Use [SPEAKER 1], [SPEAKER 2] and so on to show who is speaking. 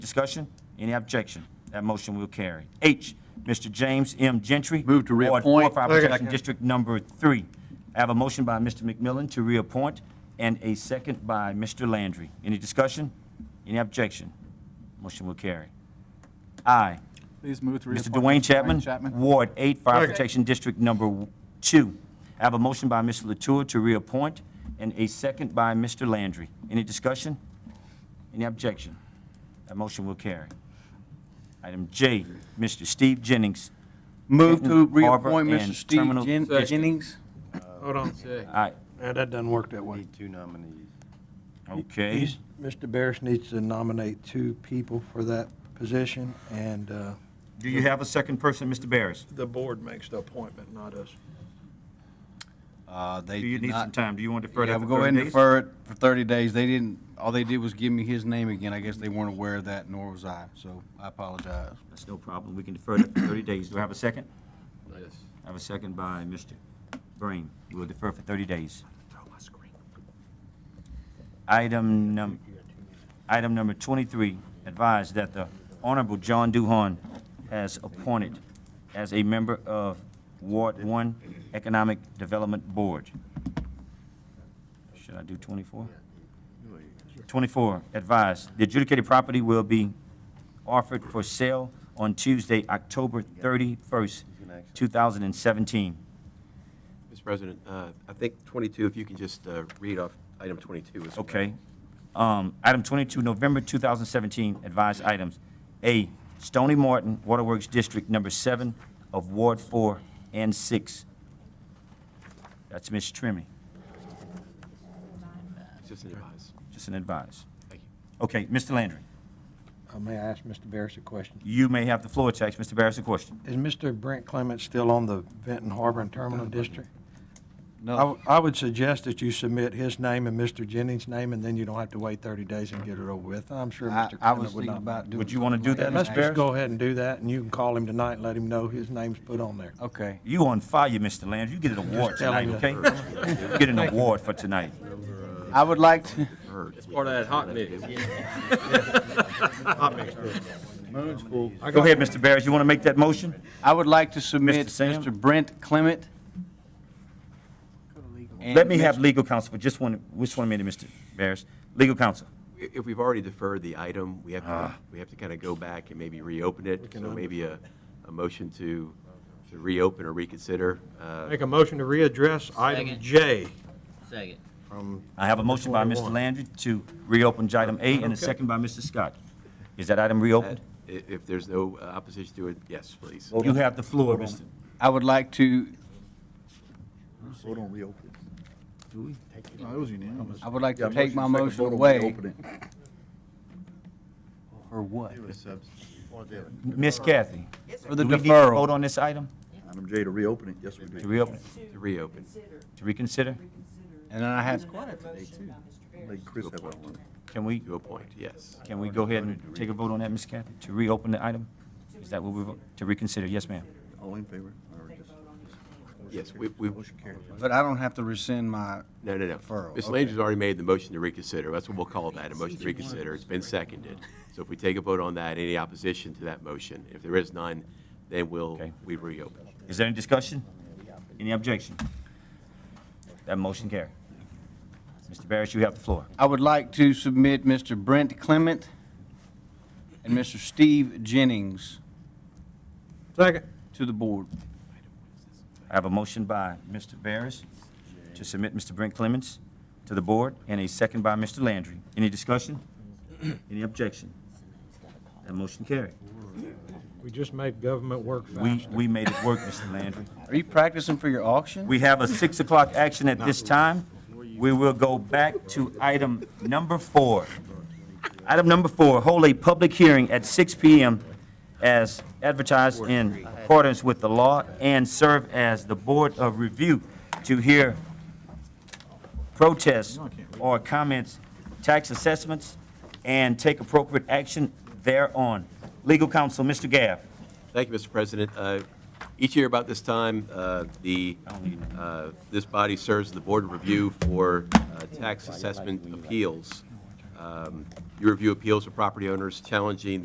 [SPEAKER 1] Discussion? Any objection? That motion will carry. H, Mr. James M. Gentry.
[SPEAKER 2] Move to
[SPEAKER 1] Ward four,
[SPEAKER 2] reappoint.
[SPEAKER 1] Fire
[SPEAKER 3] Second.
[SPEAKER 1] Protection District Number Three. I have a motion by Mr. McMillan to reappoint and a second by Mr. Landry. Any discussion? Any objection? Motion will carry. I,
[SPEAKER 4] Please move to
[SPEAKER 1] Mr.
[SPEAKER 4] reappoint.
[SPEAKER 1] Dwayne Chapman,
[SPEAKER 4] Chapman.
[SPEAKER 1] Ward Eight, Fire
[SPEAKER 3] Second.
[SPEAKER 1] Protection District Number Two. I have a motion by Mr. Latour to reappoint and a second by Mr. Landry. Any discussion? Any objection? That motion will carry. Item J, Mr. Steve Jennings.
[SPEAKER 2] Move to
[SPEAKER 1] Benton, Harbor,
[SPEAKER 2] reappoint Mr.
[SPEAKER 1] and
[SPEAKER 2] Steve
[SPEAKER 1] Terminal
[SPEAKER 2] Jen-
[SPEAKER 1] District.
[SPEAKER 2] Jennings.
[SPEAKER 3] Hold on.
[SPEAKER 1] I,
[SPEAKER 3] Yeah, that doesn't work that way.
[SPEAKER 5] Need two nominees.
[SPEAKER 1] okay,
[SPEAKER 6] He's- Mr. Barris needs to nominate two people for that position, and uh,
[SPEAKER 1] do you have a second person, Mr. Barris?
[SPEAKER 6] the board makes the appointment, not us.
[SPEAKER 2] Uh,
[SPEAKER 1] Do
[SPEAKER 2] They
[SPEAKER 1] you
[SPEAKER 2] did
[SPEAKER 1] need some
[SPEAKER 2] not.
[SPEAKER 1] time? Do you want to defer
[SPEAKER 2] Yeah,
[SPEAKER 1] that
[SPEAKER 2] we'll
[SPEAKER 1] for
[SPEAKER 2] go ahead
[SPEAKER 1] 30
[SPEAKER 2] and
[SPEAKER 1] days?
[SPEAKER 2] defer it for 30 days. They didn't, all they did was give me his name again. I guess they weren't aware of that, nor was I, so I apologize.
[SPEAKER 1] That's no problem. We can defer that for 30 days. Do I have a second? I have a second by Mr. Breen. We will defer for 30 days. Item num, item number 23, advise that the Honorable John Duhon has appointed as a member of Ward 1 Economic Development Board. Should I do 24? 24, advise, the adjudicated property will be offered for sale on Tuesday, October 31st, 2017.
[SPEAKER 7] Mr. President, uh, I think 22, if you can just uh, read off item 22 as well.
[SPEAKER 1] Okay. Um, Item 22, November 2017, advised items. A, Stony Martin Waterworks District Number 7 of Ward 4 and 6. That's Ms. Trimmy,
[SPEAKER 7] It's Just an advice.
[SPEAKER 1] just an advice.
[SPEAKER 7] Thank you.
[SPEAKER 1] Okay, Mr. Landry,
[SPEAKER 6] Uh, May I ask Mr. Barris a question?
[SPEAKER 1] you may have the floor to ask Mr. Barris a question.
[SPEAKER 6] Is Mr. Brent Clement still on the Benton Harbor and Terminal District? I
[SPEAKER 2] No,
[SPEAKER 6] w- I would suggest that you submit his name and Mr. Jennings' name, and then you don't have to wait 30 days and get it over with. I'm sure
[SPEAKER 2] I
[SPEAKER 6] Mr.
[SPEAKER 2] I was
[SPEAKER 6] Clement would
[SPEAKER 2] thinking
[SPEAKER 6] not. mind.
[SPEAKER 2] about doing.
[SPEAKER 1] Would you wanna do
[SPEAKER 6] Yeah,
[SPEAKER 1] that,
[SPEAKER 6] Let's
[SPEAKER 1] Mr. Barris?
[SPEAKER 6] just go ahead and do that, and you can call him tonight and let him know his name's put on there.
[SPEAKER 2] Okay.
[SPEAKER 1] You on fire, Mr. Landry. You get an award tonight,
[SPEAKER 6] telling
[SPEAKER 1] okay? You Get an award for tonight.
[SPEAKER 2] I would like to.
[SPEAKER 7] It's part of that hot mix.
[SPEAKER 1] Go ahead, Mr. Barris, you want to make that motion?
[SPEAKER 2] I would like to submit
[SPEAKER 1] Mr. Sam?
[SPEAKER 2] Mr. Brent Clement. and
[SPEAKER 1] Let me have
[SPEAKER 2] Mr.
[SPEAKER 1] legal counsel for just one, just one minute, Mr. Barris. Legal counsel.
[SPEAKER 7] If we've already deferred the item, we have,
[SPEAKER 1] Ah.
[SPEAKER 7] to we have to kind of go back and maybe reopen it. So maybe a, a motion to to reopen or reconsider. uh,
[SPEAKER 3] Make a motion to readdress item
[SPEAKER 8] Second.
[SPEAKER 3] J.
[SPEAKER 8] Second.
[SPEAKER 1] I have a motion by Mr. Landry to reopen item A and a second by Mr. Scott. Is that item
[SPEAKER 7] that-
[SPEAKER 1] reopened?
[SPEAKER 2] Uh,
[SPEAKER 7] i- If there's no uh, opposition to it, yes, please.
[SPEAKER 1] You have the floor, Mr.
[SPEAKER 2] I would like to,
[SPEAKER 9] Vote on reopen. Do we? No, it was unanimous.
[SPEAKER 2] I would like
[SPEAKER 9] Yeah,
[SPEAKER 2] to take my
[SPEAKER 9] second,
[SPEAKER 2] motion
[SPEAKER 9] vote on
[SPEAKER 2] away.
[SPEAKER 9] reopening.
[SPEAKER 2] For what?
[SPEAKER 1] Miss Kathy,
[SPEAKER 2] For the
[SPEAKER 1] do we need to vote
[SPEAKER 2] deferral.
[SPEAKER 1] on this item?
[SPEAKER 9] Item J to reopen it, yes, we do.
[SPEAKER 1] To reopen, it?
[SPEAKER 7] To reopen.
[SPEAKER 1] to reconsider?
[SPEAKER 2] And then I have,
[SPEAKER 9] Make Chris have that one.
[SPEAKER 1] Can we,
[SPEAKER 7] To a point, yes.
[SPEAKER 1] can we go ahead and take a vote on that, Miss Kathy? To reopen the item? Is that what we, vote? to reconsider? Yes, ma'am.
[SPEAKER 9] All in favor? or just-
[SPEAKER 7] Yes, we, we,
[SPEAKER 9] Motion carries.
[SPEAKER 2] but I don't have to rescind my,
[SPEAKER 7] no, no, no.
[SPEAKER 2] Deferral,
[SPEAKER 7] Ms.
[SPEAKER 2] okay.
[SPEAKER 7] Landry's already made the motion to reconsider. That's what we'll call that, a motion to reconsider. It's been seconded. So if we take a vote on that, any opposition to that motion? If there is none, then we'll,
[SPEAKER 1] Okay.
[SPEAKER 7] we reopen.
[SPEAKER 1] Is there any discussion? Any objection? That motion carry. Mr. Barris, you have the floor.
[SPEAKER 2] I would like to submit Mr. Brent Clement and Mr. Steve Jennings
[SPEAKER 3] Second.
[SPEAKER 2] to the board.
[SPEAKER 1] I have a motion by Mr. Barris to submit Mr. Brent Clements to the board, and a second by Mr. Landry. Any discussion? Any objection? That motion carried.
[SPEAKER 3] We just made government work
[SPEAKER 1] We,
[SPEAKER 3] faster.
[SPEAKER 1] we made it work, Mr. Landry.
[SPEAKER 2] Are you practicing for your auction?
[SPEAKER 1] We have a 6 o'clock action at this time. We will go back to item number four. Item number four, hold a public hearing at 6 PM as advertised in accordance with the law and serve as the Board of Review to hear protests or comments, tax assessments, and take appropriate action thereon. Legal counsel, Mr. Gaff.
[SPEAKER 7] Thank you, Mr. President. Uh, Each year about this time, uh, the, uh, this body serves the Board of Review for uh, Tax Assessment Appeals. Uh, Um, You review appeals of property owners challenging